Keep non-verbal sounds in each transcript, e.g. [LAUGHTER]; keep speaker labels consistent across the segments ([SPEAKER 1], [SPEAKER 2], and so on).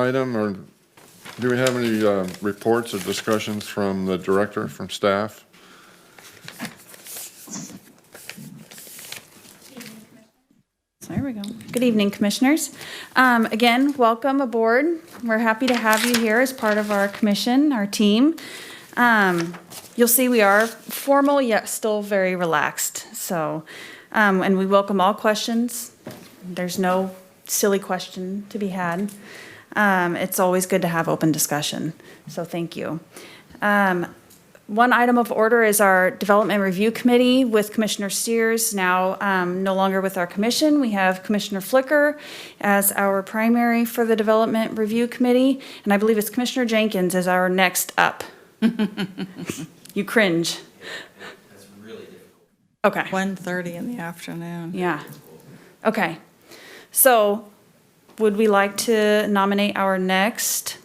[SPEAKER 1] item, or do we have any uh, reports or discussions from the director, from staff?
[SPEAKER 2] There we go. Good evening, Commissioners. Um, Again, welcome aboard. We're happy to have you here as part of our commission, our team. Um, You'll see we are formal yet still very relaxed, so, um, and we welcome all questions. There's no silly question to be had. Um, It's always good to have open discussion, so thank you. Um, one item of order is our Development Review Committee with Commissioner Steers, now um, no longer with our commission. We have Commissioner Flicker as our primary for the Development Review Committee, and I believe it's Commissioner Jenkins as our next up. [LAUGHS] You cringe. That's really difficult. Okay.
[SPEAKER 3] 1:30 in the afternoon.
[SPEAKER 2] Yeah. Okay. So would we like to nominate our next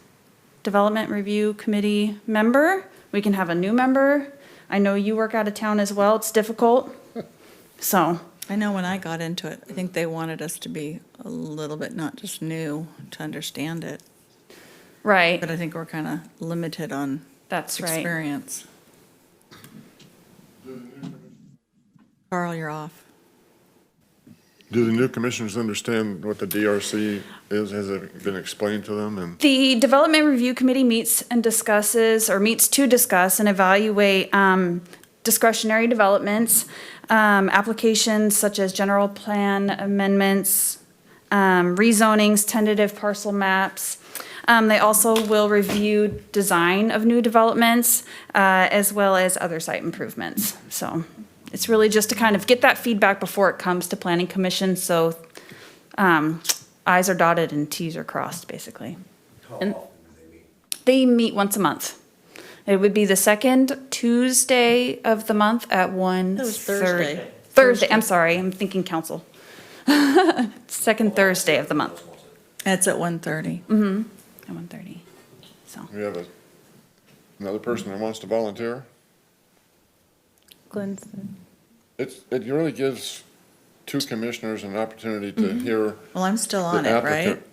[SPEAKER 2] Development Review Committee member? We can have a new member. I know you work out of town as well. It's difficult.
[SPEAKER 3] [LAUGHS]
[SPEAKER 2] So,
[SPEAKER 3] I know when I got into it, I think they wanted us to be a little bit not just new to understand it,
[SPEAKER 2] right.
[SPEAKER 3] but I think we're kind of limited on
[SPEAKER 2] That's right.
[SPEAKER 3] experience. Carl, you're off.
[SPEAKER 1] Do the new commissioners understand what the DRC is? Has it been explained to them? And
[SPEAKER 2] The Development Review Committee meets and discusses, or meets to discuss and evaluate um, discretionary developments, um, applications such as general plan amendments, um, rezonings, tentative parcel maps. Um, They also will review design of new developments, uh, as well as other site improvements. So it's really just to kind of get that feedback before it comes to Planning Commission, so um, i's are dotted and t's are crossed, basically. They meet once a month. It would be the second Tuesday of the month at one.
[SPEAKER 3] That was
[SPEAKER 2] thir-
[SPEAKER 3] Thursday.
[SPEAKER 2] Thursday, I'm sorry, I'm thinking council. [LAUGHS] Second Thursday of the month
[SPEAKER 3] It's at 1:30.
[SPEAKER 2] at one thirty, so.
[SPEAKER 1] we have a- another person that wants to volunteer? It's, it really gives two commissioners an opportunity to hear
[SPEAKER 3] Well, I'm still
[SPEAKER 1] the
[SPEAKER 3] on it, right?
[SPEAKER 1] applicant.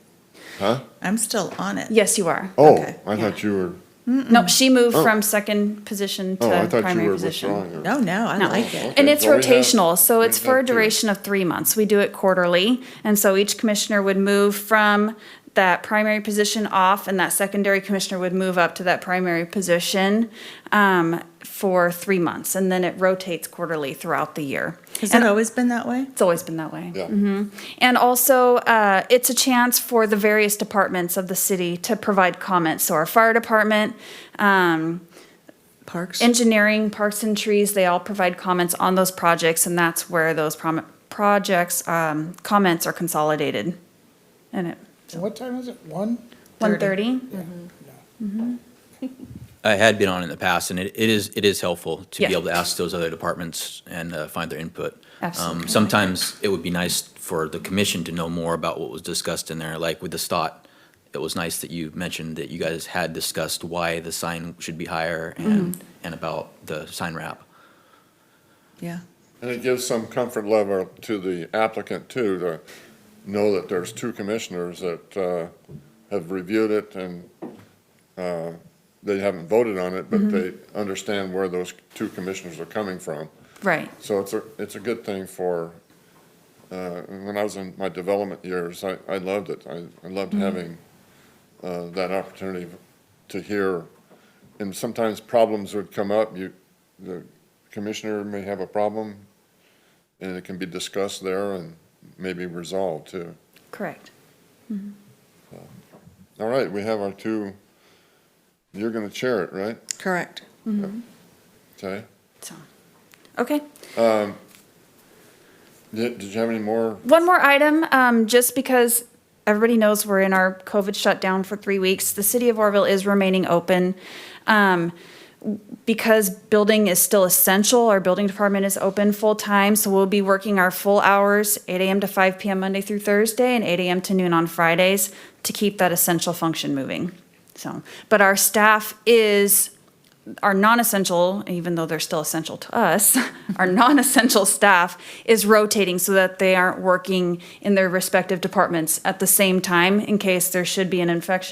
[SPEAKER 1] Huh?
[SPEAKER 3] I'm still on it.
[SPEAKER 2] Yes, you are.
[SPEAKER 1] Oh,
[SPEAKER 3] Okay,
[SPEAKER 1] I thought you were,
[SPEAKER 2] No, she moved
[SPEAKER 1] Oh.
[SPEAKER 2] from second position
[SPEAKER 1] oh, I
[SPEAKER 2] to
[SPEAKER 1] thought you
[SPEAKER 2] primary
[SPEAKER 1] were
[SPEAKER 2] position.
[SPEAKER 1] withdrawing.
[SPEAKER 3] No, Oh, no, I
[SPEAKER 2] No.
[SPEAKER 3] like it.
[SPEAKER 2] And
[SPEAKER 1] Okay,
[SPEAKER 2] it's
[SPEAKER 1] well, we have-
[SPEAKER 2] rotational, so it's
[SPEAKER 1] we
[SPEAKER 2] for a
[SPEAKER 1] have two.
[SPEAKER 2] duration of three months. We do it quarterly. And so each commissioner would move from that primary position off, and that secondary commissioner would move up to that primary position um, for three months. And then it rotates quarterly throughout the year.
[SPEAKER 3] Has it always been that way?
[SPEAKER 2] It's always been that way. Mm-hmm.
[SPEAKER 1] Yeah.
[SPEAKER 2] And also, uh, it's a chance for the various departments of the city to provide comments. So our fire department, um,
[SPEAKER 3] Parks?
[SPEAKER 2] engineering, parks and trees, they all provide comments on those projects, and that's where those prom- projects, um, comments are consolidated. And it,
[SPEAKER 4] So what time is it? One?
[SPEAKER 2] one thirty?
[SPEAKER 5] I had been on in the past, and it, it is, it is helpful to be
[SPEAKER 2] Yeah.
[SPEAKER 5] able to ask those other departments and uh, find their input. Um,
[SPEAKER 2] Absolutely.
[SPEAKER 5] Sometimes it would be nice for the commission to know more about what was discussed in there, like with the stot. It was nice that you mentioned that you guys had discussed why the sign should be higher
[SPEAKER 2] Mm-hmm.
[SPEAKER 5] and, and about the sign wrap.
[SPEAKER 3] Yeah.
[SPEAKER 1] And it gives some comfort level to the applicant too, to know that there's two commissioners that uh, have reviewed it and uh, they haven't voted on it, but they understand where those two commissioners are coming from.
[SPEAKER 2] Right,
[SPEAKER 1] So it's a, it's a good thing for, uh, when I was in my development years, I, I loved it. I I loved having uh, that opportunity to hear. And sometimes problems would come up, you, the commissioner may have a problem, and it can be discussed there and maybe resolved too.
[SPEAKER 2] correct.
[SPEAKER 1] All right, we have our two, you're gonna chair it, right?
[SPEAKER 3] Correct.
[SPEAKER 1] Okay.
[SPEAKER 2] So, okay.
[SPEAKER 1] Did did you have any more?
[SPEAKER 2] One more item, um, just because everybody knows we're in our COVID shutdown for three weeks, the city of Orville is remaining open. Um, because building is still essential, our building department is open full-time, so we'll be working our full hours, eight AM to five PM Monday through Thursday, and eight AM to noon on Fridays, to keep that essential function moving. So, but our staff is, our non-essential, even though they're still essential to us, [LAUGHS] our non-essential staff is rotating so that they aren't working in their respective departments at the same time, in case there should be an infection